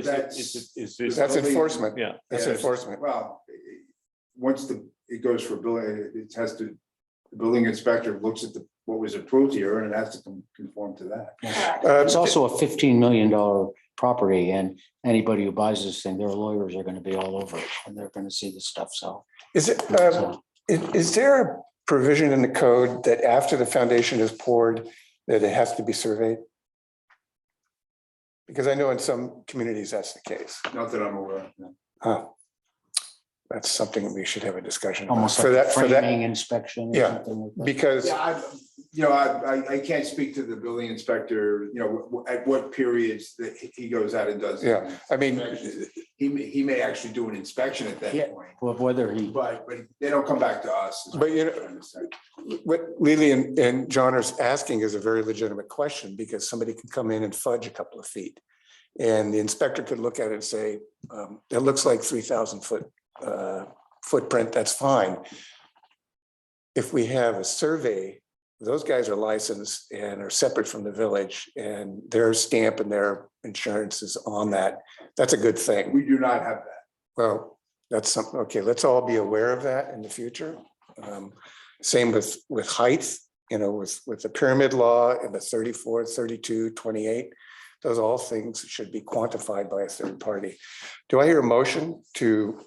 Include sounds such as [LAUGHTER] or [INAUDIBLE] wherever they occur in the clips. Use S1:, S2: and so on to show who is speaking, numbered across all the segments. S1: Is it- is it- is it-
S2: That's enforcement.
S1: Yeah.
S2: That's
S3: Yes.
S2: enforcement.
S3: Well, i- i- once the, it goes for building, it has to, the building inspector looks at the, what was approved here and it has to con- conform to that.
S2: Uh,
S4: It's also a fifteen million dollar property and anybody who buys this thing, their lawyers are gonna be all over it and they're gonna see this stuff, so.
S2: Is it, uh,
S4: so,
S2: i- is there a provision in the code that after the foundation is poured, that it has to be surveyed? Because I know in some communities, that's the case.
S3: Not that I'm aware of. no.
S2: Oh, That's something we should have a discussion about
S4: Almost
S2: for
S4: like a
S2: that, for that,
S4: framing inspection. or
S2: Yeah,
S4: something like that.
S2: because,
S3: Yeah, I, you know, I, I, I can't speak to the building inspector, you know, wh- wh- at what periods that he- he goes out and does.
S2: Yeah. I mean,
S3: He may, he may actually do an inspection at
S4: Yeah.
S3: that point,
S4: Well, Whether he,
S3: but, but they don't come back to us. is what
S2: But, you
S3: I'm
S2: know-
S3: trying to say.
S2: what Lily and, and John are asking is a very legitimate question because somebody can come in and fudge a couple of feet. And the inspector could look at it and say, um, it looks like three thousand foot, uh, footprint, that's fine. If we have a survey, those guys are licensed and are separate from the village and their stamp and their insurance is on that. That's a good thing.
S3: We do not have that.
S2: Well, that's something, okay, let's all be aware of that in the future. Um, Same with, with heights, you know, with, with the pyramid law and the 34, 32, 28. Those all things should be quantified by a third party. Do I hear a motion to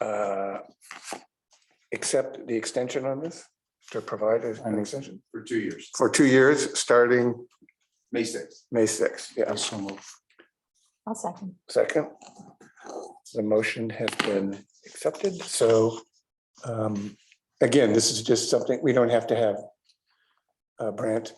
S2: uh, accept the extension on this, to provide an extension
S3: for two years,
S2: for two years, starting
S3: May sixth.
S2: May sixth? Yeah,
S4: so move.
S5: I'll second.
S2: Second. The motion has been accepted, so um, again, this is just something, we don't have to have uh, Brandt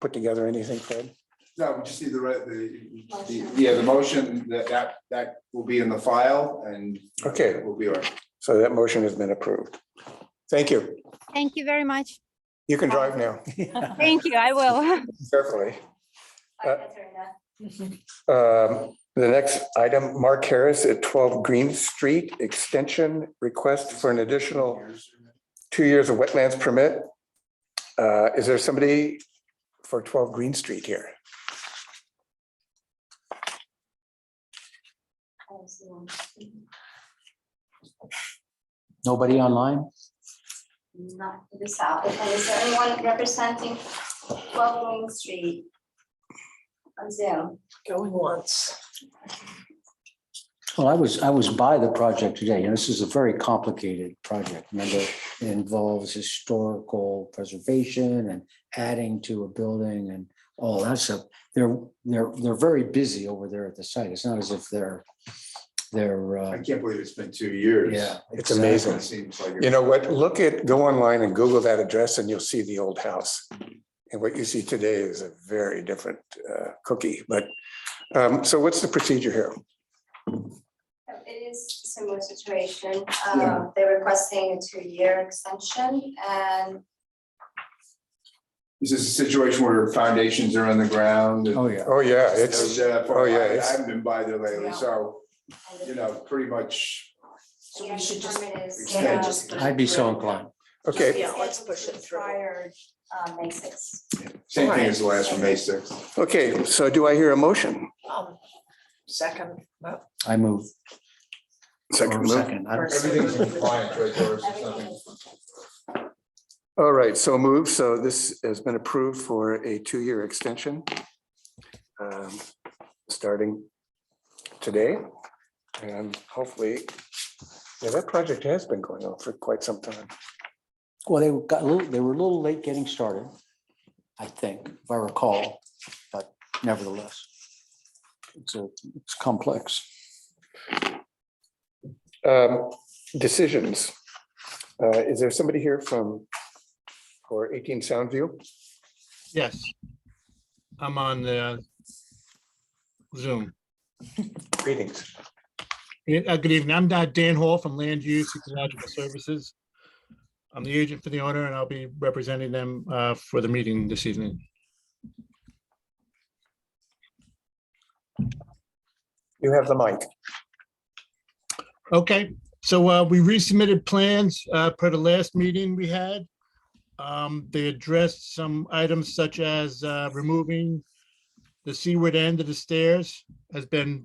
S2: put together anything, Fred?
S3: No, we just need the, re- the, the- yeah, the motion that, that, that will be in the file and
S2: Okay,
S3: will be our.
S2: so that motion has been approved. Thank you.
S6: Thank you very much.
S2: You can drive now
S6: Thank you, I will. [LAUGHS]
S2: carefully. Uh, Um, The next item, Mark Harris at 12 Green Street, extension request for an additional two years of wetlands permit. Uh, Is there somebody for 12 Green Street here?
S4: Nobody online?
S5: Not to the south, and is everyone representing twelve Green Street? On Zoom,
S7: Going once.
S4: Well, I was, I was by the project today, and this is a very complicated project. Remember, it involves historical preservation and adding to a building and all that stuff. They're, they're, they're very busy over there at the site. It's not as if they're, they're,
S3: I
S4: uh,
S3: can't believe it's been two years.
S4: yeah.
S2: It's amazing.
S3: It seems like.
S2: You know what? Look at, go online and Google that address and you'll see the old house. And what you see today is a very different uh, cookie, but, um, so what's the procedure here?
S5: Uh, it is a similar situation,
S3: Yeah.
S5: um, they're requesting a two-year extension and
S3: Is this a situation where foundations are on the ground? and-
S4: Oh, yeah.
S2: Oh, yeah,
S3: There's,
S2: it's,
S3: uh,
S2: oh, yeah,
S3: I- I
S2: it's-
S3: haven't been by there lately,
S5: Yeah.
S3: so,
S5: and
S3: you
S5: the-
S3: know, pretty much,
S7: So we should just-
S5: the permit is.
S3: Can I
S5: um,
S7: just-
S4: I'd be so inclined.
S2: okay,
S7: Yeah, let's push it through.
S5: Prior, um, May sixth.
S3: same thing as the last one, May sixth.
S2: okay. So do I hear a motion?
S7: Um, Second. well,
S4: I move.
S2: Second,
S4: Or
S2: move.
S4: Second. I don't-
S7: first.
S3: Everything's
S4: [LAUGHS]
S3: in compliance, right, Doris? There's
S5: Everything
S3: nothing-
S5: is.
S2: All right, so moved. So this has been approved for a two-year extension. um, Starting today. And hopefully, yeah, that project has been going on for quite some time.
S4: Well, they got a little, they were a little late getting started, I think, if I recall, but nevertheless. It's a, it's complex.
S2: Um, Decisions. Uh, Is there somebody here from, for 18 Soundview?
S8: Yes. I'm on the Zoom.
S2: Greetings.
S8: Yeah, uh, Good evening. I'm uh, Dan Hall from Land Use Ecological Services. I'm the agent for the owner and I'll be representing them uh, for the meeting this evening.
S2: You have the mic.
S8: Okay, so uh, we resubmitted plans uh, per the last meeting we had. Um, They addressed some items such as uh, removing the seaward end of the stairs has been